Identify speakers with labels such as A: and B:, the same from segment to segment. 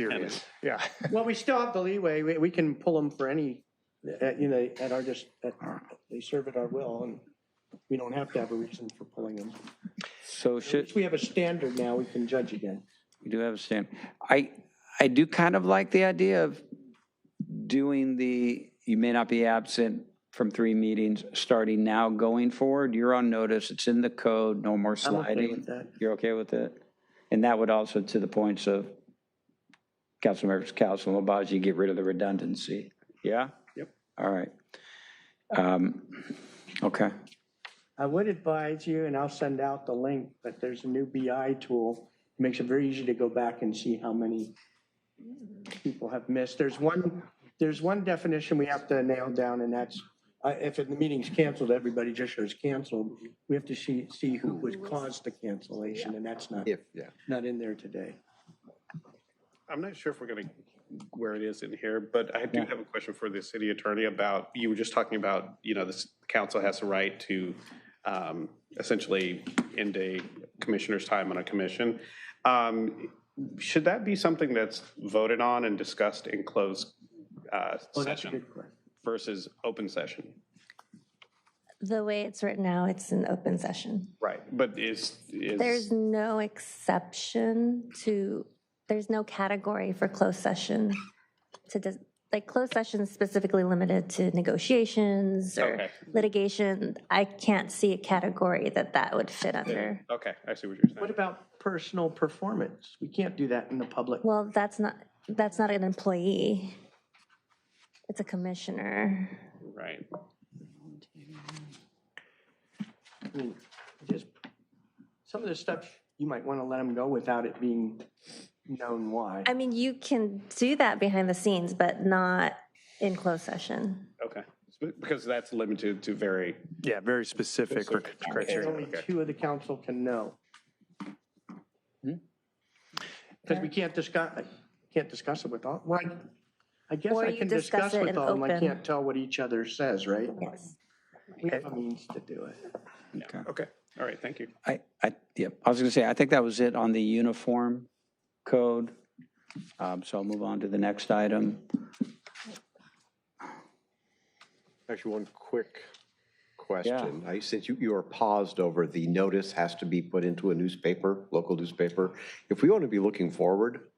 A: serious. Yeah.
B: Well, we still have the leeway. We, we can pull them for any, at, you know, at our just, at, they serve at our will and we don't have to have a reason for pulling them.
C: So should,
B: Since we have a standard now, we can judge again.
C: we do have a stand. I, I do kind of like the idea of doing the, you may not be absent from three meetings, starting now going forward. You're on notice. It's in the code, no more
B: I'm okay with
C: sliding.
B: that.
C: You're okay with it? And that would also, to the points of Councilmembers Council and Labaji, get rid of the redundancy. Yeah?
B: Yep.
C: All right. Um, Okay.
B: I would advise you, and I'll send out the link, but there's a new BI tool. It Makes it very easy to go back and see how many people have missed. There's one, there's one definition we have to nail down and that's, uh, if the meeting's canceled, everybody just shows canceled. We have to see, see who was caused the cancellation and that's not,
D: If, yeah.
B: not in there today.
A: I'm not sure if we're going to, where it is in here, but I do have a question for the city attorney about, you were just talking about, you know, this council has the right to um, essentially end a commissioner's time on a commission. Um, Should that be something that's voted on and discussed in closed uh,
B: Oh, that's a
A: session
B: good question.
A: versus open session?
E: The way it's written now, it's an open session.
A: Right. But is,
E: There's
A: is,
E: no exception to, there's no category for closed session to, dis- like, closed session is specifically limited to negotiations or
A: Okay.
E: litigation. I can't see a category that that would fit under.
A: okay, I see what you're
B: What
A: saying.
B: about personal performance? We can't do that in the public.
E: Well, that's not, that's not an employee. It's a commissioner.
A: Right.
B: I mean, just, some of the stuff, you might want to let them go without it being known why.
E: I mean, you can do that behind the scenes, but not in closed session.
A: Okay. Because that's limited to very
F: Yeah, very specific or
B: There's
F: criteria.
B: only
A: Okay.
B: two of the council can know. Because we can't discuss, can't discuss it with all, well, I guess
E: Or
B: I
E: you
B: can
E: discuss
B: discuss
E: it
B: with
E: in
B: all of them, I
E: open.
B: can't tell what each other says, right?
E: Yes.
B: We have a means to do it.
A: Okay, all right, thank you.
C: I, I, yep, I was gonna say, I think that was it on the uniform code. Um, so I'll move on to the next item.
D: Actually, one quick question. I, since you, you are paused over, the notice has to be put into a newspaper, local newspaper. If we want to be looking forward,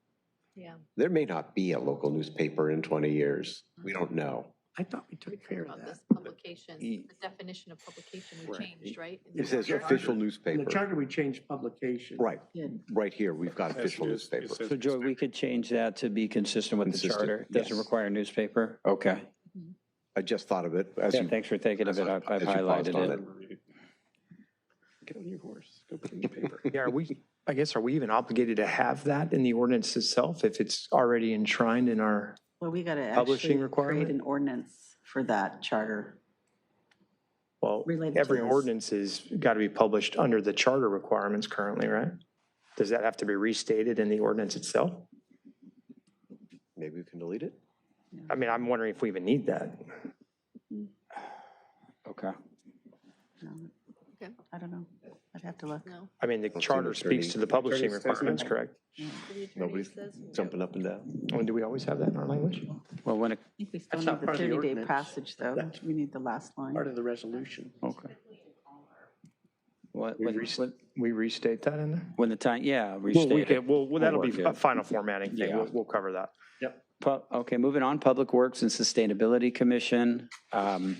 G: Yeah.
D: there may not be a local newspaper in 20 years. We don't know.
B: I thought we took care of
G: About
B: that.
G: this publication,
C: E-
G: the definition of publication we
D: Right.
G: changed, right? In
D: It says
G: the-
D: official
B: In the
D: newspaper.
B: charter, we changed publication.
D: Right, right here, we've got official
A: Yes, it is. It
D: newspaper.
A: says
C: So Joy, we could change that to be consistent with the
D: Consistent,
C: charter. Doesn't
D: yes.
C: require a newspaper. Okay.
D: I just thought of it as
C: Yeah,
D: you,
C: thanks for thinking of it. I've I've
D: as you paused
C: highlighted
D: on
C: it.
A: Get on your horse, go put it in the paper.
F: Yeah, are we, I guess, are we even obligated to have that in the ordinance itself if it's already enshrined in our?
H: Well, we got to
F: Publishing
H: actually
F: requirement?
H: create an ordinance for that charter.
F: Well,
H: Related to
F: every
H: this.
F: ordinance has got to be published under the charter requirements currently, right? Does that have to be restated in the ordinance itself?
D: maybe we can delete it?
F: I mean, I'm wondering if we even need that.
C: Okay.
G: Okay.
H: Um, I don't know. I'd have to look.
G: No.
F: I mean, the charter speaks to the publishing requirements, correct?
G: City attorney
D: Nobody's
G: says no.
D: jumping up and down.
F: And do we always have that in our language?
C: Well, when, it-
H: I think we still
B: That's not
H: need the
B: part of the
H: 30-day
B: ordinance.
H: passage, though. We need the last line.
B: Part of the resolution.
C: okay. What,
F: We
C: when,
F: rest-
C: when-
F: We restate that in there?
C: when the time, yeah,
F: Well, we
C: restate it.
F: could, well, well, that'll be
C: We'll
F: a
C: work it.
F: final formatting thing.
C: Yeah.
F: We'll, we'll cover that.
C: Pu- Okay, moving on, Public Works and Sustainability Commission. Um,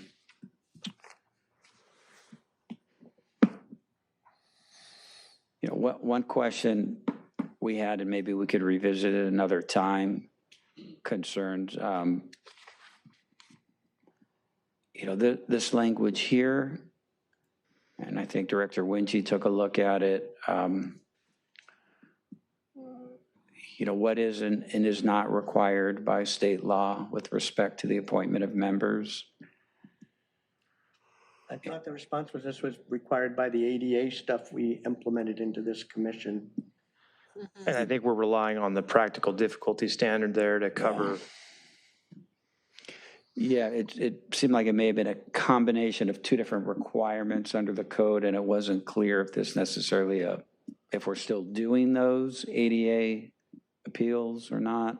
C: You know, what, one question we had, and maybe we could revisit it another time, concerns, um, you know, thi- this language here, and I think Director Winchie took a look at it. um, you know, what is and, and is not required by state law with respect to the appointment of members.
B: I thought the response was this was required by the ADA stuff we implemented into this commission.
F: And
H: Mm-hmm.
F: I think we're relying on the practical difficulty standard there to cover.
C: Yeah, it, it seemed like it may have been a combination of two different requirements under the code, and it uh, wasn't clear if this necessarily a, if we're still doing those ADA appeals or not.